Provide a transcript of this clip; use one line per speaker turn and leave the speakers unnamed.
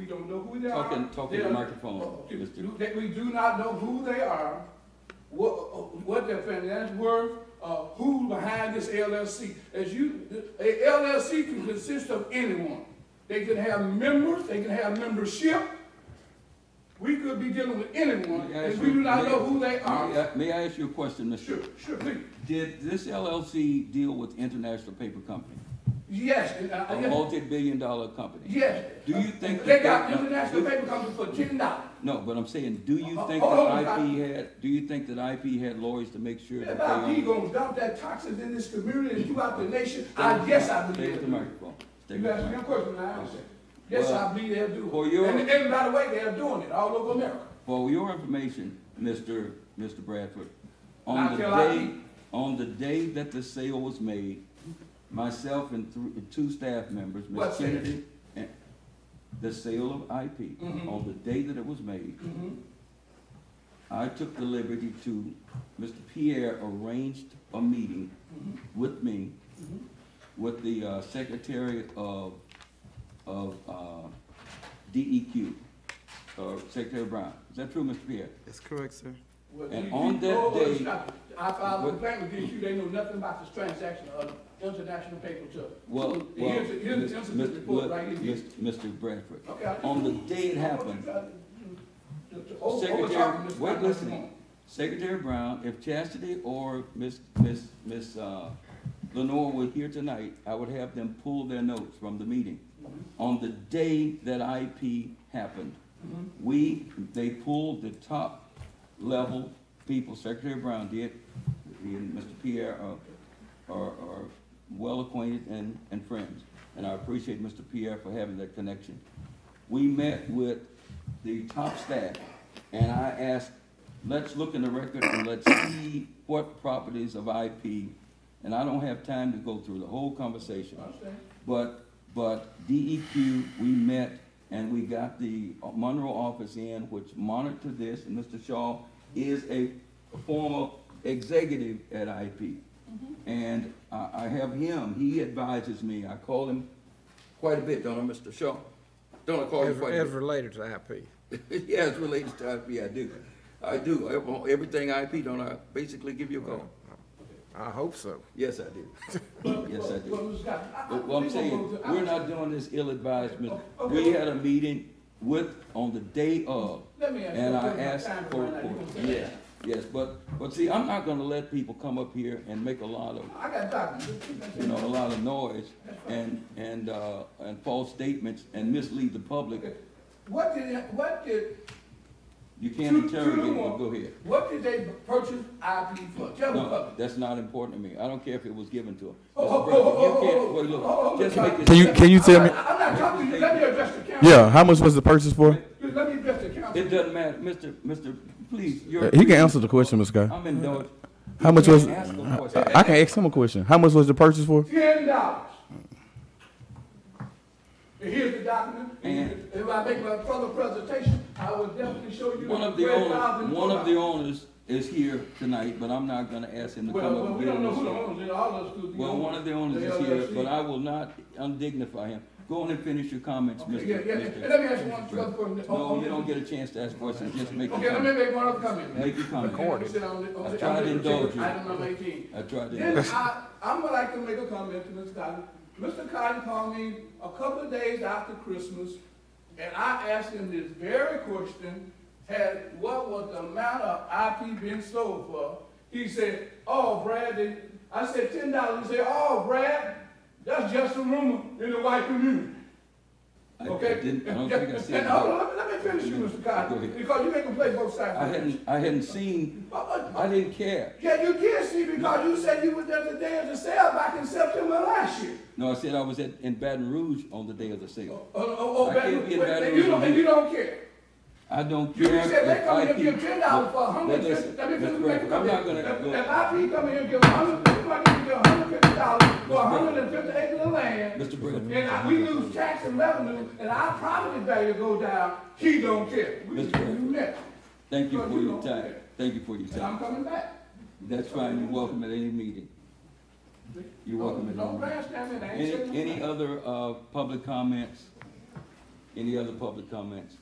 don't know who they are.
Talking, talking
They
to the
are- Oh,
microphone,
Okay,
Mr.
do- that we do not know who they are, what, what their financial worth, uh, who's behind this LLC. As you, a LLC can consist of anyone. They can have members, they can have membership. We could be dealing with anyone,
May I ask
and we do
you-
not
may-
know who they
may
are.
I- May I ask you a question,
Sure,
Mr.?
sure, please.
Did this LLC deal with International Paper Company?
Yes, and, uh,
A multi-billion dollar company?
yes. Uh,
Do you think
They
that
got
that-
international paper company for ten dollars.
No, but I'm saying, do you
Uh,
think
hold on,
that
I-
IP had, do you think that IP had lawyers to make sure that
If
they
I be gonna
owned?
dump that toxins in this community and throughout the nation, I guess I
Stay
believe
with
it.
the microphone. Stay
You
with the
asked me a
microphone.
question, I answered. Yes,
Well,
I believe they'll do
for
it.
your-
And, and by the way, they're doing it all over America.
For your information, Mr. Mr. Bradford,
Now
on the
tell I-
day, on the day that the sale was made, myself and thr- and two staff members,
What
Ms.
sale?
Kennedy, and the sale of IP,
Mhm.
on the day that it was made,
Mhm.
I took the liberty to, Mr. Pierre arranged a meeting
Mm-hmm.
with me, with the uh, Secretary of, of uh, DEQ, uh, Secretary Brown. Is that true, Mr. Pierre?
That's correct, sir.
Well,
And
you-
on
you
that
go over and
day-
stop. I filed a
What-
complaint with DQ, they know nothing about this transaction of international paper to.
Well, well,
Here's, the- here's the
Mis-
incident report
look,
right here. Oh,
Mis- Mr. Bradford,
Okay, I-
on the day it happened,
oh,
Secretary, wait, listen. Secretary Brown, if Chastity or Miss, Miss, Miss, uh, Lenore were here tonight, I would have them pull their notes from the meeting.
Mm-hmm.
On the day that IP happened,
Mm-hmm.
we, they pulled the top level people, Secretary Brown did, he and Mr. Pierre are, are, are well acquainted and, and friends. And I appreciate Mr. Pierre for having that connection. We met with the top staff and I asked, let's look in the record and let's see what properties of IP. And I don't have time to go through the whole conversation. But, but DEQ, we met and we got the Monroe office in, which monitored this, and Mr. Shaw is a former executive at IP. And I, I have him, he advises me, I call him quite a bit, don't I, Mr. Shaw? Don't I call Oh, you
As,
quite a
as
bit?
related to IP.
Yeah, it's related to IP, I do. I do, Ev- everything IP, don't I basically give you a call?
I hope so.
Yes, I do. Yes, I do.
But
Well, I'm saying, we're not doing this ill-advised, Mr. We had a meeting with, on the day of,
Let me ask you
and
a
I
question.
asked
Time
for,
right now. You
for,
gonna say
yeah, yes, but, but see, I'm not gonna let people come up here and make a lot of,
I got documents.
you know, a lot of noise and, and, uh, and false statements and mislead the public.
What did, what did,
You can't
Two- two to
interrogate,
one.
but go ahead.
what did they purchase IP for? Tell me.
No, that's not important to me. I don't care if it was given to them.
Oh,
Mr.
oh,
Bradford,
oh, oh,
you can't-
oh, oh,
wait, look,
oh, oh,
just
oh,
make it-
Can you can you
I'm
tell me?
not- I'm not talking to you, let me address the council.
Yeah, how much was the purchase for?
Let me address the council.
It doesn't matter, Mr. Mr., please, you're.
Uh, He can answer the question, Ms. Guy.
I'm indulged.
How
You
much
can't
was-
ask a question.
I can ask him a question. How much was the purchase for?
Ten dollars. And here's the document, and
And-
if I make my further presentation, I will definitely show you.
One of the
where
owners,
$1,000
one of the owners is here tonight, but I'm not gonna ask him to come
Well,
up
well,
and
we
get
don't know who the
on
owners is, all of us could
the
be.
Well, one of the owners is here,
LLC.
but I will not undignify him. Go on and finish your comments,
Okay, Yeah,
Mr.
yeah,
Mr.
and let me ask you one other question.
No, you don't get a chance to ask questions, just make
Okay,
your
let me
comment.
make one other comment.
Make your comment.
Recorded.
Sit on the- on
I
the-
tried
on
to
the-
indulge you.
Item number eighteen.
I tried
Then
to,
I, I'm gonna like to make a comment to Mr. Cotton. Mr. Cotton called me a couple of days after Christmas, and I asked him this very question, had, what was the amount of IP been sold for? He said, oh, Brad, they-" I said ten dollars, he said, oh, Brad, that's just a rumor in the white community.
I I
Okay?
didn't, I don't think I said
And uh, hold on,
that.
let me, let me finish you, Mr.
Go
Cotton,
ahead.
because you make a play both sides.
I hadn't, I hadn't seen,
Uh, uh,
I didn't care.
yeah, you did see because you said you were there the day of the sale back in September last year.
No, I said I was at, in Baton Rouge on the day of the
Oh,
sale.
oh, oh,
I
but-
can't be
but-
invited
and you
to
don't, and
you.
you don't care.
I don't
You
care.
said
if
they come here and
IP
give ten dollars for a
Now,
hundred and
listen,
fifty, let me
Mr.
finish make a
Bradford, I'm not
comment.
gonna
If-
go-
If IP come here and give a hundred, somebody can give a hundred and fifty dollars for a hundred and fifty acres of land,
Mr. Bradford,
and I- we lose tax and revenue, and our property value go down, he don't care. We-
Mr. Bradford.
you next.
thank you
Because
for
you
your
don't
time.
care.
Thank you for your
And I'm
time.
coming back.
That's fine, you're welcome at any meeting. You're welcome at
Don't
any meeting.
bash them, and I ain't saying
Any,
nothing.
any other, uh, public comments? Any other public comments?